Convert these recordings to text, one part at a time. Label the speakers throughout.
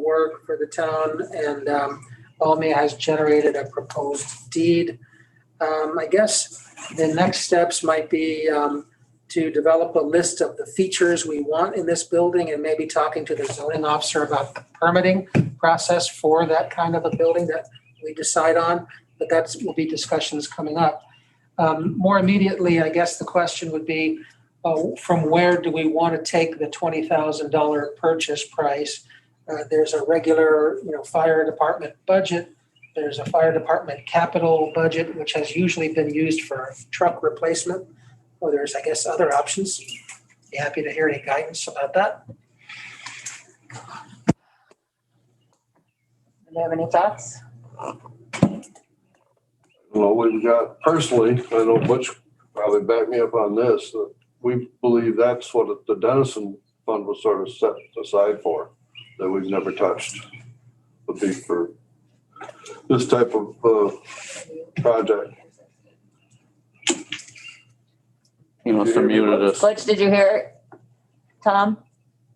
Speaker 1: work for the town and um, Almia has generated a proposed deed. Um, I guess the next steps might be um, to develop a list of the features we want in this building and maybe talking to the zoning officer about the permitting process for that kind of a building that we decide on, but that's, will be discussions coming up. Um, More immediately, I guess the question would be, uh, from where do we want to take the twenty thousand dollar purchase price? Uh, There's a regular, you know, fire department budget. There's a fire department capital budget, which has usually been used for truck replacement. Or there's, I guess, other options. Be happy to hear any guidance about that.
Speaker 2: Do you have any thoughts?
Speaker 3: Well, we've got, personally, I know Butch probably back me up on this, that we believe that's what the Dennison Fund was sort of set aside for, that we've never touched. Would be for this type of, uh, project.
Speaker 4: He must have muted us.
Speaker 2: Butch, did you hear it? Tom?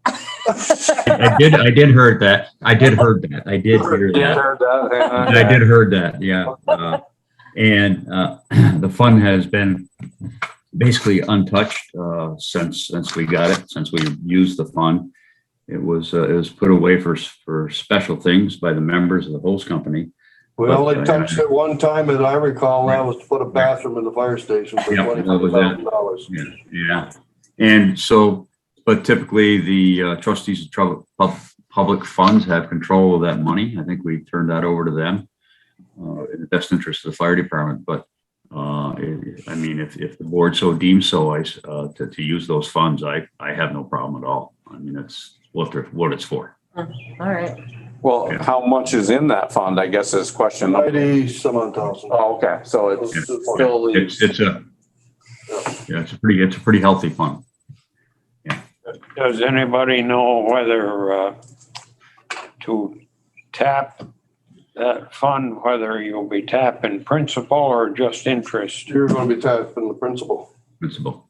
Speaker 5: I did, I did heard that. I did heard that. I did hear that. I did heard that, yeah. Uh, And uh, the fund has been basically untouched uh, since, since we got it, since we used the fund. It was, uh, it was put away for, for special things by the members of the host company.
Speaker 3: We only touched it one time, as I recall, that was to put a bathroom in the fire station for
Speaker 5: Yeah, that
Speaker 3: twenty-five
Speaker 5: was it.
Speaker 3: thousand dollars.
Speaker 5: Yeah, yeah. And so, but typically the uh, trustees of trouble, pub, public funds have control of that money. I think we turned that over to them. Uh, in the best interest of the fire department, but, uh, i- I mean, if, if the board so deems so, I, s- uh, to, to use those funds, I, I have no problem at all. I mean, that's what they're, what it's for.
Speaker 2: All right.
Speaker 6: Well,
Speaker 5: Yeah.
Speaker 6: how much is in that fund, I guess is question. number-
Speaker 3: Ninety some odd thousand.
Speaker 6: Oh, okay, so it's
Speaker 3: Yeah.
Speaker 6: still
Speaker 5: It's,
Speaker 6: leaves.
Speaker 5: it's a, yeah, it's a pretty, it's a pretty healthy fund.
Speaker 7: Does anybody know whether uh, to tap that fund, whether you'll be tapping principal or just interest?
Speaker 3: You're gonna be tapped in the principal.
Speaker 5: Principal.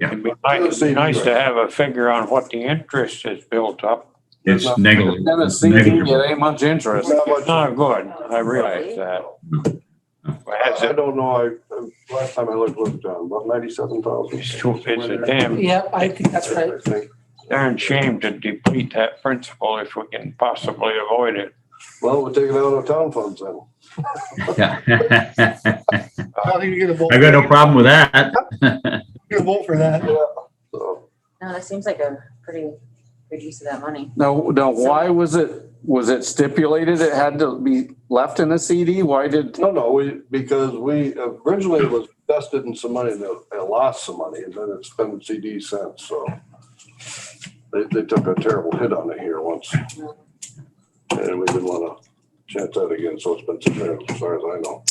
Speaker 7: It'd be nice, nice to have a figure on what the interest is built up.
Speaker 5: It's negligible.
Speaker 6: Then it's
Speaker 5: It's
Speaker 6: CD,
Speaker 5: negligible.
Speaker 6: it ain't much interest.
Speaker 3: Not much-
Speaker 7: It's not good, I realize that. But Has
Speaker 3: I
Speaker 7: it,
Speaker 3: don't know, I, um, last time I looked, looked down, about ninety-seven thousand.
Speaker 7: it's too- it's a damn,
Speaker 1: Yeah, I think that's right.
Speaker 7: darn shame to deplete that principal if we can possibly avoid it.
Speaker 3: Well, we'll take it out of town funds then.
Speaker 5: Yeah.
Speaker 8: I think you're gonna vote,
Speaker 5: I've got no problem with that.
Speaker 8: you're gonna vote for that.
Speaker 1: Uh-huh.
Speaker 3: Yeah. So,
Speaker 2: No, that seems like a pretty good use of that money.
Speaker 6: No, no, why was it, was it stipulated it had to be left in a CD? Why did,
Speaker 3: no, no, we, because we originally it was invested in some money and they lost some money and then it's been CD since, so. They, they took a terrible hit on it here once. And we didn't wanna chance that again, so it's been suspended, as far as I know.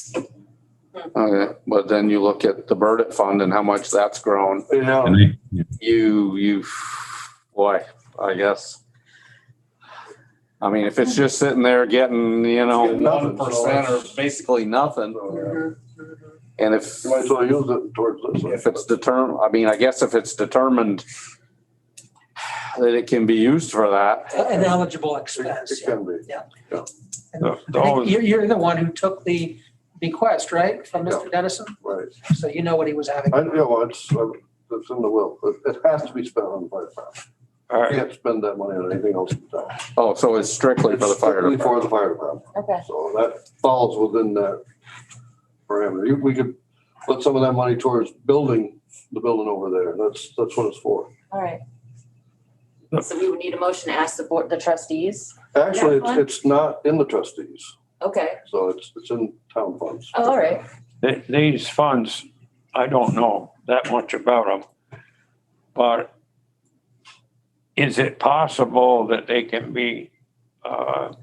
Speaker 6: okay, uh, but then you look at the Burdett Fund and how much that's grown.
Speaker 3: Yeah,
Speaker 5: And I-
Speaker 8: Oh.
Speaker 6: You, you, boy, I guess. I mean, if it's just sitting there getting, you know,
Speaker 3: It's getting nothing,
Speaker 6: one
Speaker 3: so
Speaker 6: percent or
Speaker 3: it's-
Speaker 6: basically nothing,
Speaker 1: Mhm.
Speaker 6: and if.
Speaker 3: you might as well use it towards this.
Speaker 6: If it's determined, I mean, I guess if it's determined that it can be used for that,
Speaker 1: An eligible
Speaker 3: It
Speaker 1: expense. yeah.
Speaker 3: can be.
Speaker 7: The-
Speaker 1: I think
Speaker 7: Those,
Speaker 1: You're, you're the one who took the bequest, right, from
Speaker 3: Yeah.
Speaker 1: Mr. Dennison?
Speaker 3: Right.
Speaker 1: So you know what he was having.
Speaker 3: I, you know, it's, uh, it's in the will. It, it has to be spent on the fire department.
Speaker 7: all
Speaker 3: I
Speaker 7: right,
Speaker 3: can't spend that money on anything else. in town.
Speaker 6: oh, so it's strictly for the
Speaker 3: It's
Speaker 6: fire
Speaker 3: strictly For
Speaker 6: department.
Speaker 3: the fire department.
Speaker 2: Okay.
Speaker 3: So that falls within that parameter. You- We could put some of that money towards building the building over there. That's, that's what it's for.
Speaker 2: All right. So we would need a motion to ask the board, the trustees.
Speaker 3: Actually, it's,
Speaker 2: That one?
Speaker 3: it's not in the trustees,
Speaker 2: Okay.
Speaker 3: so it's, it's in town funds.
Speaker 2: Oh, all right.
Speaker 7: Th- these funds, I don't know that much about them. But is it possible that they can be uh,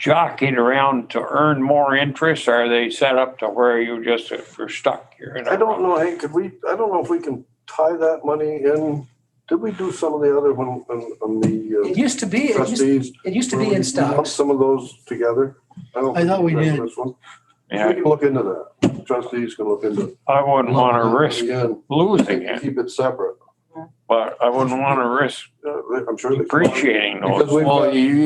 Speaker 7: jockeyed around to earn more interest? Or Are they set up to where you just, if you're stuck, you're in a.
Speaker 3: I don't know, hey, could we, I don't know if we can tie that money in. Did we do some of the other one, on, on
Speaker 1: It
Speaker 3: the
Speaker 1: used to be,
Speaker 3: uh,
Speaker 1: it used,
Speaker 3: trustees?
Speaker 1: it used to
Speaker 3: Where
Speaker 1: be
Speaker 3: we
Speaker 1: in
Speaker 3: lump
Speaker 1: stocks.
Speaker 3: Some of those together. don't
Speaker 8: I thought we
Speaker 3: think
Speaker 8: did.
Speaker 3: that's one. We
Speaker 7: Yeah,
Speaker 3: can look into that. Trustees can look into.
Speaker 7: I wouldn't want to risk
Speaker 3: Again,
Speaker 7: losing it,
Speaker 3: Keep it separate.
Speaker 7: but I wouldn't want to risk
Speaker 3: Uh, I'm sure. they can.
Speaker 7: depreciating those.
Speaker 3: Because we've
Speaker 6: Well,
Speaker 3: got-
Speaker 6: you,